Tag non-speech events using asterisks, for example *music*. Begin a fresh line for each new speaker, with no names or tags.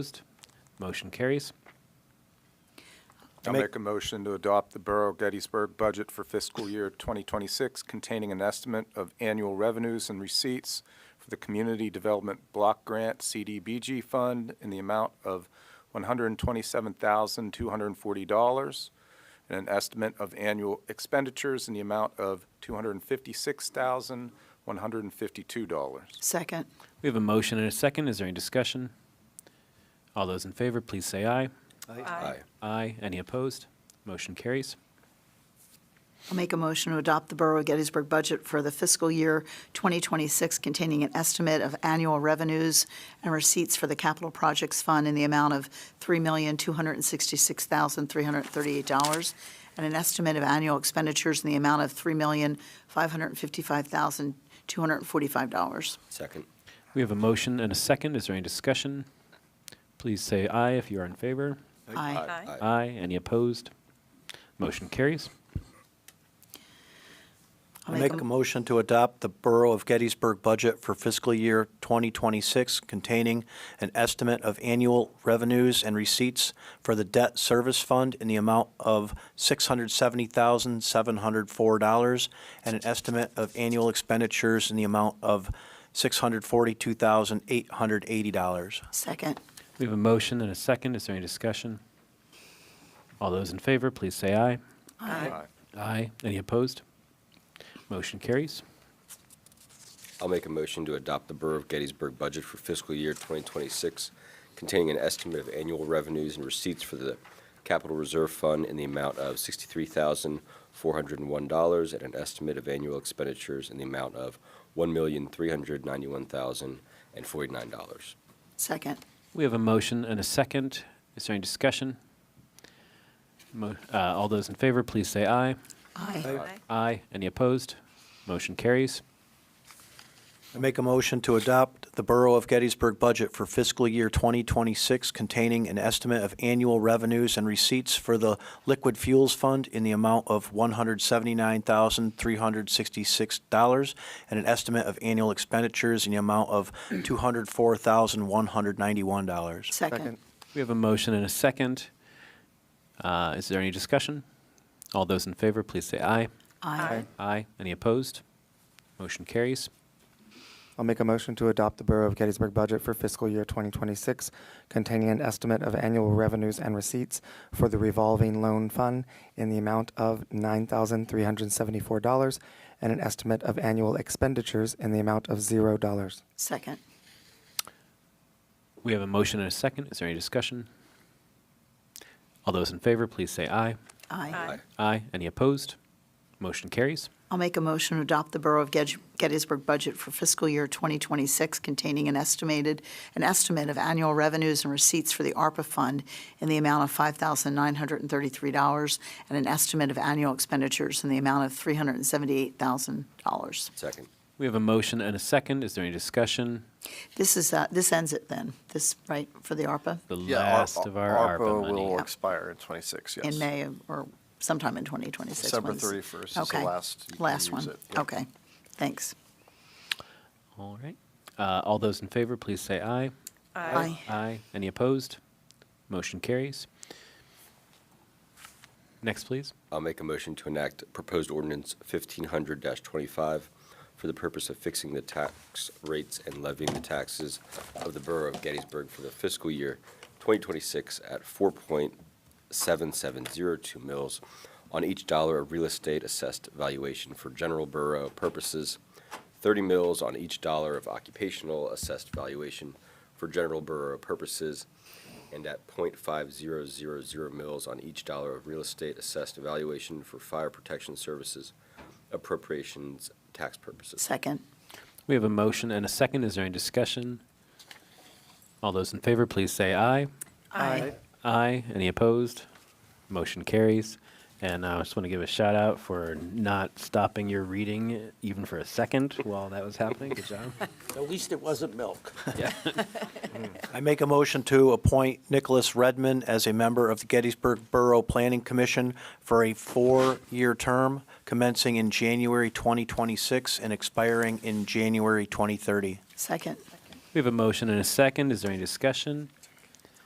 Opposed? Motion carries.
I'll
Make-
make a motion to adopt the Borough of Gettysburg budget for fiscal year 2026 containing an estimate of annual revenues and receipts for the Community Development Block Grant CDBG Fund in the amount of $127,240 and an estimate of annual expenditures in the amount of $256,152.
Second.
We have a motion and a second. Is there any discussion? All those in favor, please say aye.
Aye.
Aye. Any opposed? Motion carries.
I'll make a motion to adopt the Borough of Gettysburg budget for the fiscal year 2026 containing an estimate of annual revenues and receipts for the Capital Projects Fund in the amount of $3,266,338 and an estimate of annual expenditures in the amount of $3,555,245.
Second.
We have a motion and a second. Is there any discussion? Please say aye if you are in favor.
Aye.
Aye.
Aye. Any opposed? Motion carries.
I'll
I make a motion to adopt the Borough of Gettysburg budget for fiscal year 2026 containing an estimate of annual revenues and receipts for the debt service fund in the amount of $670,704 and an estimate of annual expenditures in the amount of $642,880.
Second.
We have a motion and a second. Is there any discussion? All those in favor, please say aye.
Aye.
Aye. Any opposed? Motion carries.
I'll make a motion to adopt the Borough of Gettysburg budget for fiscal year 2026, containing an estimate of annual revenues and receipts for the Capital Reserve Fund in the amount of $63,401 and an estimate of annual expenditures in the amount of $1,391,049.
Second.
We have a motion and a second. Is there any discussion? Mo- uh, All those in favor, please say aye.
Aye.
Aye.
Aye. Any opposed? Motion carries.
I make a motion to adopt the Borough of Gettysburg budget for fiscal year 2026 containing an estimate of annual revenues and receipts for the Liquid Fuels Fund in the amount of $179,366 and an estimate of annual expenditures in the amount of $204,191.
Second.
We have a motion and a second. Uh, Is there any discussion? All those in favor, please say aye.
Aye.
Aye. Any opposed? Motion carries.
I'll make a motion to adopt the Borough of Gettysburg budget for fiscal year 2026, containing an estimate of annual revenues and receipts for the revolving loan fund in the amount of $9,374 and an estimate of annual expenditures in the amount of $0.
Second.
We have a motion and a second. Is there any discussion? All those in favor, please say aye.
Aye.
Aye.
Aye. Any opposed? Motion carries.
I'll make a motion to adopt the Borough of Get- Gettysburg budget for fiscal year 2026 containing an estimated, an estimate of annual revenues and receipts for the ARPA fund in the amount of $5,933 and an estimate of annual expenditures in the amount of $378,000.
Second.
We have a motion and a second. Is there any discussion?
This is, uh, this ends it then, this, right, for the ARPA?
The
Yeah,
last
ARPA-
of our ARPA
will
money.
expire in '26, yes.
In May or sometime in 2026?
December
when this-
31st is the
Okay.
last you can
Last
use
one,
it, yep.
okay, thanks.
All right. Uh, All those in favor, please say aye.
Aye.
Aye. Any opposed? Motion carries. Next, please.
I'll make a motion to enact proposed ordinance 1500-25 for the purpose of fixing the tax rates and levying the taxes of the Borough of Gettysburg for the fiscal year 2026 at 4.7702 mils on each dollar of real estate assessed valuation for general borough purposes, 30 mils on each dollar of occupational assessed valuation for general borough purposes, and at .5000 mils on each dollar of real estate assessed valuation for fire protection services appropriations tax purposes.
Second.
We have a motion and a second. Is there any discussion? All those in favor, please say aye.
Aye.
Aye. Any opposed? Motion carries. And I just want to give a shout out for not stopping your reading even for a second while that was happening. Good *laughs* job.
At least it wasn't milk.
Yeah.
I make a motion to appoint Nicholas Redman as a member of the Gettysburg Borough Planning Commission for a four-year term commencing in January 2026 and expiring in January 2030.
Second.
We have a motion and a second. Is there any discussion?